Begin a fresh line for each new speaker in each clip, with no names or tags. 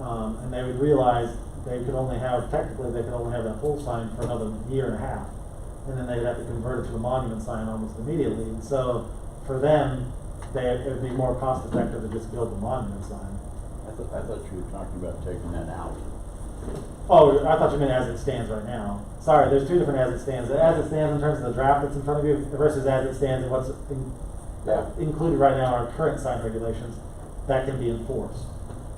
Um, and they would realize they could only have, technically, they could only have that pole sign for another year and a half. And then they'd have to convert it to a monument sign almost immediately, and so for them, they, it'd be more cost effective to just build a monument sign.
I thought, I thought you were talking about taking that out.
Oh, I thought you meant as it stands right now. Sorry, there's two different as it stands. The As it stands in terms of the draft that's in front of you versus as it stands and what's in-
Yeah.
included right now are current sign regulations that can be enforced.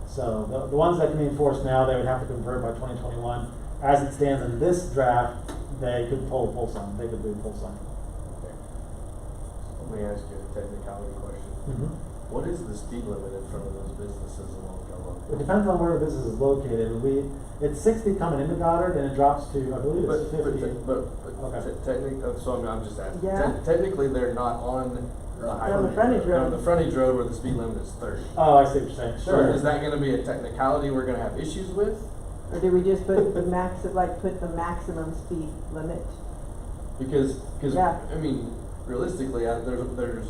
So the, the ones that can be enforced now, they would have to convert by twenty twenty-one. As it stands in this draft, they could pull a pole sign, they could do a pole sign.
Let me ask you a technicality question.
Mhm.
What is the speed limit in front of those businesses along
It
Gallup?
depends on where the business is located. We, it's sixty coming into Goddard and it drops to, I believe it's
But, but,
fifty.
te- but, but
Okay.
te- technic, uh, so I'm, I'm just asking,
Yeah.
Te- technically, they're not on the highway.
on the frontage
They're On
road.
the frontage road where the speed limit is thirty.
Oh, I see what you're saying,
So
sure.
Is that gonna be a technicality we're gonna have issues with?
Or do we just put the max, like, put the maximum speed limit?
Because, because,
Yeah.
I mean, realistically, I, there's, there's,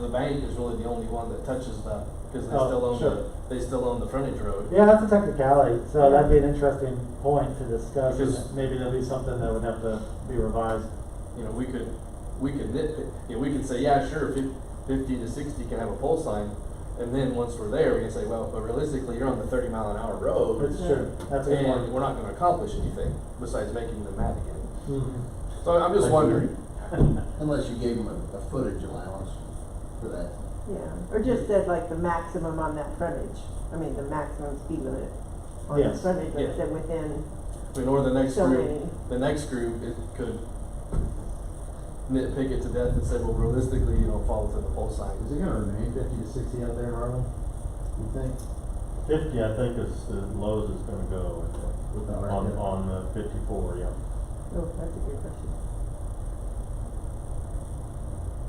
the bank is really the only one that touches that, because they
Oh,
still own
sure.
the, they still own the frontage road.
Yeah, that's a technicality, so that'd be an interesting point to discuss,
Because-
and maybe there'll be something that would have to be revised.
you know, we could, we could nitpick, you know, we could say, yeah, sure, fif- fifty to sixty can have a pole sign, and then once we're there, we can say, well, but realistically, you're on the thirty mile an hour road,
It's true, that's a good
and
point.
we're not gonna accomplish anything besides making them mad again.
Mhm.
So I'm just wondering,
Unless you gave them a, a footage allowance for that.
Yeah, or just said like the maximum on that frontage, I mean, the maximum speed limit on the
Yes.
frontage,
Yeah.
like said within
I mean, or the next
so
group,
many.
the next group, it could nitpick it to death and say, well, realistically, you don't fall within the pole
Is
sign.
it gonna remain fifty to sixty out there, Marlon? You think?
Fifty, I think is the lowest it's gonna go I think,
With the
on,
market?
on the fifty-four, yeah.
Oh, that's a good question.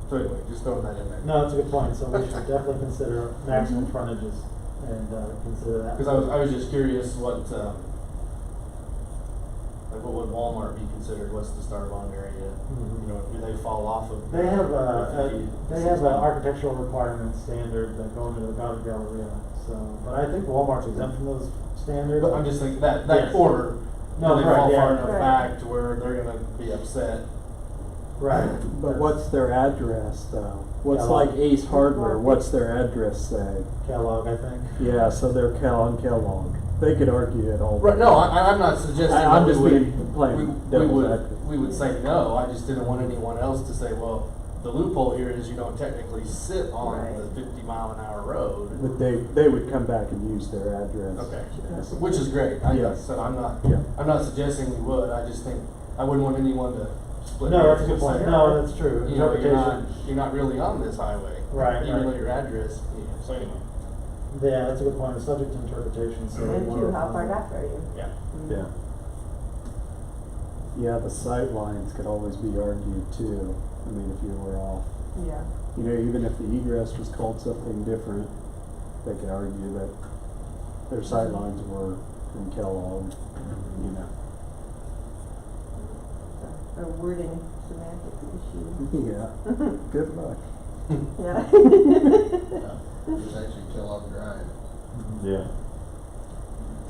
So anyway, just throwing that in there.
No, that's a good point, so we should definitely consider maximum frontages and, uh, consider that.
Mm-hmm. Because I was, I was just curious what, um, like what would Walmart be considered, what's the star bond area?
Mhm.
You know, do they fall off of?
They have a, a-
fifty,
they
sixty?
have an architectural requirement standard that go into the Goddard Galleria, so, but I think Walmart's exempt from those standards.
But I'm just thinking, that, that
Yes.
quarter, do
No,
they
right,
fall far
yeah.
enough
Right.
back to where they're gonna be upset?
Right.
But what's their address though? What's
Yeah.
like Ace Hardware, what's their address say?
Kellogg, I think.
Yeah, so they're Cal and Kellogg. They could argue it all.
Right, no, I, I'm not suggesting
I- I'm
that we
just
would,
being plain
we, we
devil's
would,
advocate.
we would say no, I just didn't want anyone else to say, well, the loophole here is you don't technically sit on
Right.
the fifty mile an hour road.
But they, they would come back and use their address.
Okay,
Yes.
which is great, I
Yeah.
guess, so I'm not,
Yeah.
I'm not suggesting we would, I just think, I wouldn't want anyone to split.
No, that's a
hairs
good
and
point,
say,
no, that's true.
You know, you're not,
Interpretation.
you're not really on this highway.
Right,
Even
right.
though your address, you know, so anyway.
Yeah, that's a good point, it's subject to interpretation, so. we
And
wanna-
two, how far back are you? Mm-hmm.
Yeah.
Yeah. Yeah, the sight lines could always be argued too. I mean, if you were off,
Yeah,
you know, even if the egress was called something different, they could argue that their sight lines were from Kellogg, you know.
a wording semantic issue.
Yeah,
Mm-hmm.
good luck.
Yeah.
It's actually Kellogg Drive.
Yeah.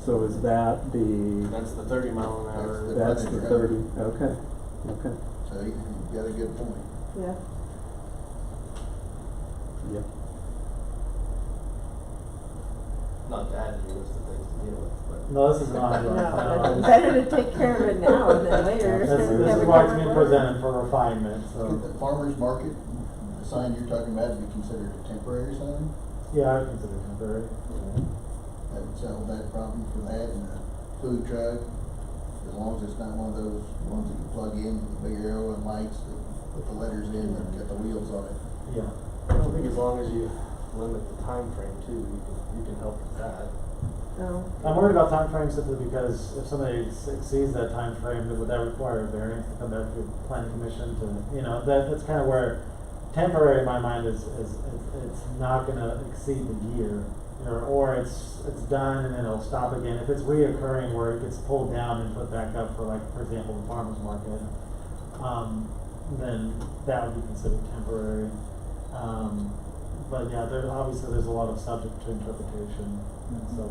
So is that the,
That's the thirty mile an hour.
that's the thirty, okay, okay,
So you, you got a good point.
Yeah,
yep.
Not to add to your list of things to deal with, but.
No, this is not.
no,
right. No,
but
it's-
better to take care of it now than later.
This, this is why it's being presented for refinement,
Could
so,
the farmer's market, the sign you're talking about, be considered a temporary sign?
yeah, I would consider temporary.
That would solve that problem for that and a food truck, as long as it's not one of those ones that you plug in, with the big arrow and lights, that put the letters in and got the wheels on it.
Yeah,
I think as long as you limit the time frame too, you can, you can help with that.
No,
I'm worried about timeframe simply because if somebody exceeds that time timeframe, then would that require a variance to come back to the planning commission to, you know, that, that's kind of where temporary in my mind is, is, it's- it's not gonna exceed the year, you know, or it's, it's done and then it'll stop again. If it's reoccurring where it gets pulled down and put back up for like, for example, the farmer's market, um, then that would be considered temporary. Um, but yeah, there, obviously, there's a lot of subject to interpretation, and so